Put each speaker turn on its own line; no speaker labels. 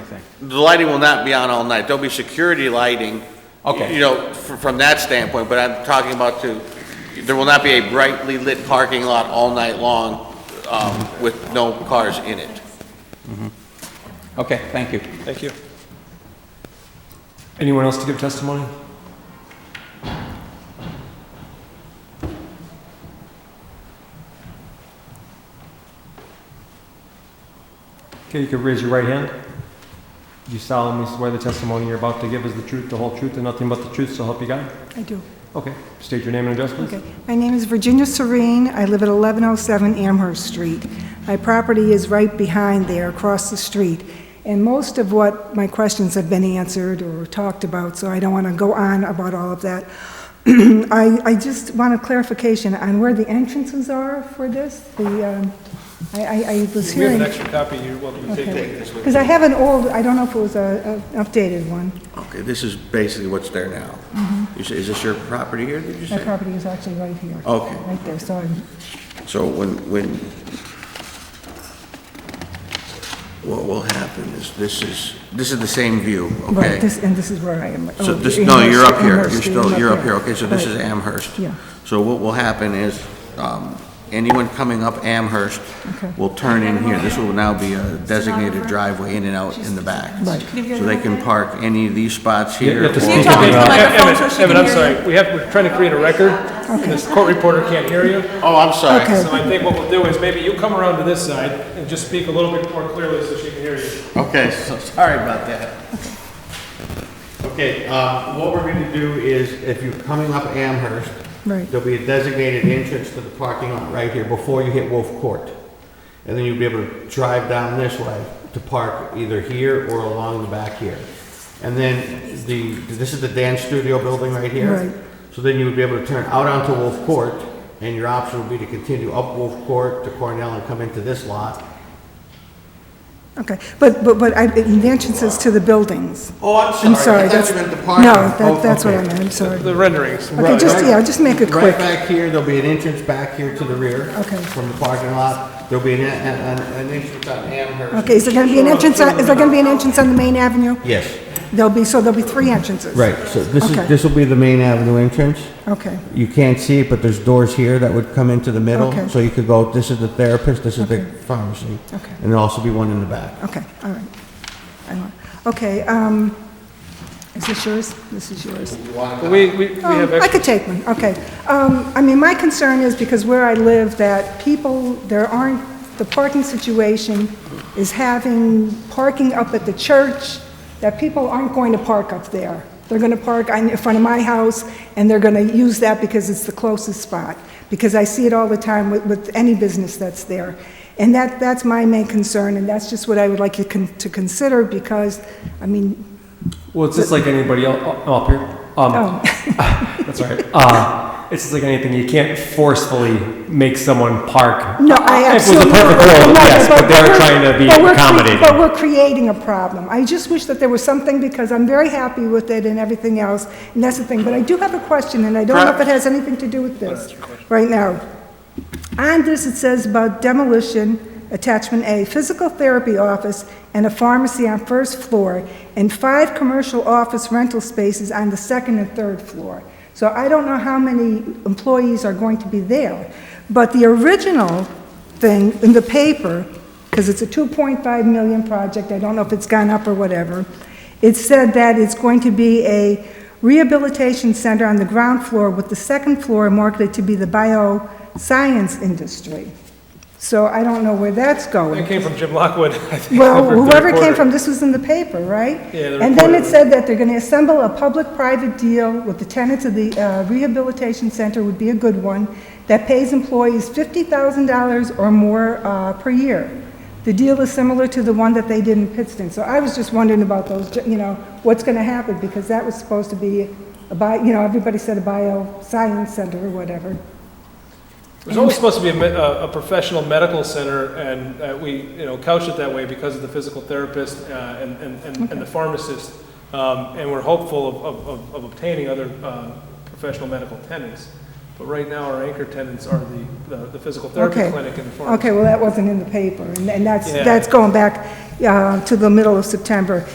night?
The lighting will not be on all night. There'll be security lighting.
Okay.
You know, f- from that standpoint, but I'm talking about to, there will not be a brightly lit parking lot all night long, um, with no cars in it.
Okay, thank you.
Thank you. Anyone else to give testimony? Okay, you could raise your right hand. Do you solemnly swear the testimony you're about to give is the truth, the whole truth, and nothing but the truth, so help you God?
I do.
Okay, state your name and address, please.
Okay. My name is Virginia Serene. I live at 1107 Amherst Street. My property is right behind there, across the street. And most of what my questions have been answered or talked about, so I don't want to go on about all of that. I, I just want a clarification on where the entrances are for this. The, um, I, I I was
We have
hearing...
an extra copy, you're welcome to take it.
Because I have an old, I don't know if it was a, an updated one.
Okay, this is basically what's there now. You say, is this your property here, did you
Mm-hmm. My
say?
property is actually right here.
Okay.
Right there, so I'm,
So when, when, what will happen is, this is, this is the same view, okay?
right, this, and this is where I am. like,
So
oh,
this, no, you're up here,
Amherst,
you're
Amherst,
still, you're up here, okay, so this
Right.
is Amherst.
Yeah.
So what will happen is, um, anyone coming up Amherst
Okay.
will turn in here, this will now be a designated driveway in and out in the back.
Right.
So they can park any of these spots
You
here.
have to
or-
speak
Evan,
up.
the microphone so she
Evan,
can
I'm
hear
sorry, we have, we're trying to create a record, and this court reporter can't hear you.
Oh, I'm sorry.
Okay.
So I think what we'll do is maybe you come around to this side and just speak a little bit more clearly so she can hear you.
Okay, so sorry about that.
Okay, uh, what we're gonna do is, if you're coming up Amherst,
Right.
there'll be a designated entrance to the parking lot right here before you hit Wolf Court. And then you'll be able to drive down this way to park either here or along the back here. And then the, this is the dance studio building right here.
Right.
So then you would be able to turn out onto Wolf Court, and your option would be to continue up Wolf Court to Cornell and come into this lot.
Okay, but, but, but I, the entrances to the buildings.
Oh,
I'm sorry, that's. No, that,
Oh,
that's what I meant, I'm sorry.
The renderings.
Okay, just, yeah, just make it
Right
quick.
back here, there'll be an entrance back here to the rear.
Okay.
From the parking lot. There'll be an, an, an entrance on Amherst.
Okay, is there gonna be an entrance, on- is there gonna be an entrance on the main avenue?
Yes.
There'll be, so there'll be three entrances?
Right, so this
Okay.
is, this will be the main avenue entrance.
Okay,
You can't see it, but there's doors here that would come into the middle.
Okay.
So you could go, this is the therapist, this is the pharmacy.
Okay.
And there'll also be one in the back.
okay, all right. I don't- Okay, um, is this yours? This is yours.
We, we, we
Um,
have
I
extra.
could take one, okay. Um, I mean, my concern is because where I live, that people, there aren't, the parking situation is having parking up at the church, that people aren't going to park up there. They're going to park on- in front of my house, and they're going to use that because it's the closest spot, because I see it all the time with, with any business that's there. And that, that's my main concern, and that's just what I would like you con- to consider, because, I mean,
Well, it's just like anybody else, oh, up here. Um,
oh,
That's all right. Uh, it's just like anything, you can't forcefully make someone park.
No,
If it was
I absolutely.
a perfect world,
No,
yes, but they're
we're-
trying to be
but we're cre- But
accommodating.
we're creating a problem. I just wish that there was something, because I'm very happy with it and everything else, and that's the thing. But I do have a question, and I don't know if it has anything to do with this right now. On this, it says about demolition, attachment A, physical therapy office and a pharmacy on first floor, and five commercial office rental spaces on the second and third floor. So I don't know how many employees are going to be there. But the original thing in the paper, because it's a 2.5 million project, I don't know if it's gone up or whatever, it said that it's going to be a rehabilitation center on the ground floor with the second floor marketed to be the bioscience industry. So I don't know where that's
That
going.
came from Jim Lockwood, I think.
Well,
the
whoever came
reporter.
from, this was in the paper, right?
Yeah, the
And then it
reporter.
said that they're going to assemble a public-private deal with the tenants of the uh, rehabilitation center would be a good one, that pays employees $50,000 or more uh, per year. The deal is similar to the one that they did in Pittston. So I was just wondering about those, you know, what's going to happen, because that was supposed to be a bio, you know, everybody said a bioscience center or whatever.
There's always supposed to be a, me- a, a professional medical center, and uh, we, you know, couch it that way because of the physical therapist uh, and, and, and, and the pharmacist. Um, and we're hopeful of, of, of, of obtaining other uh, professional medical tenants. But right now, our anchor tenants are the, the, the physical therapy
Okay.
clinic and the pharmacy.
Okay, well, that wasn't in the paper, and and that's,
Yeah.
that's going back uh, to the middle of September.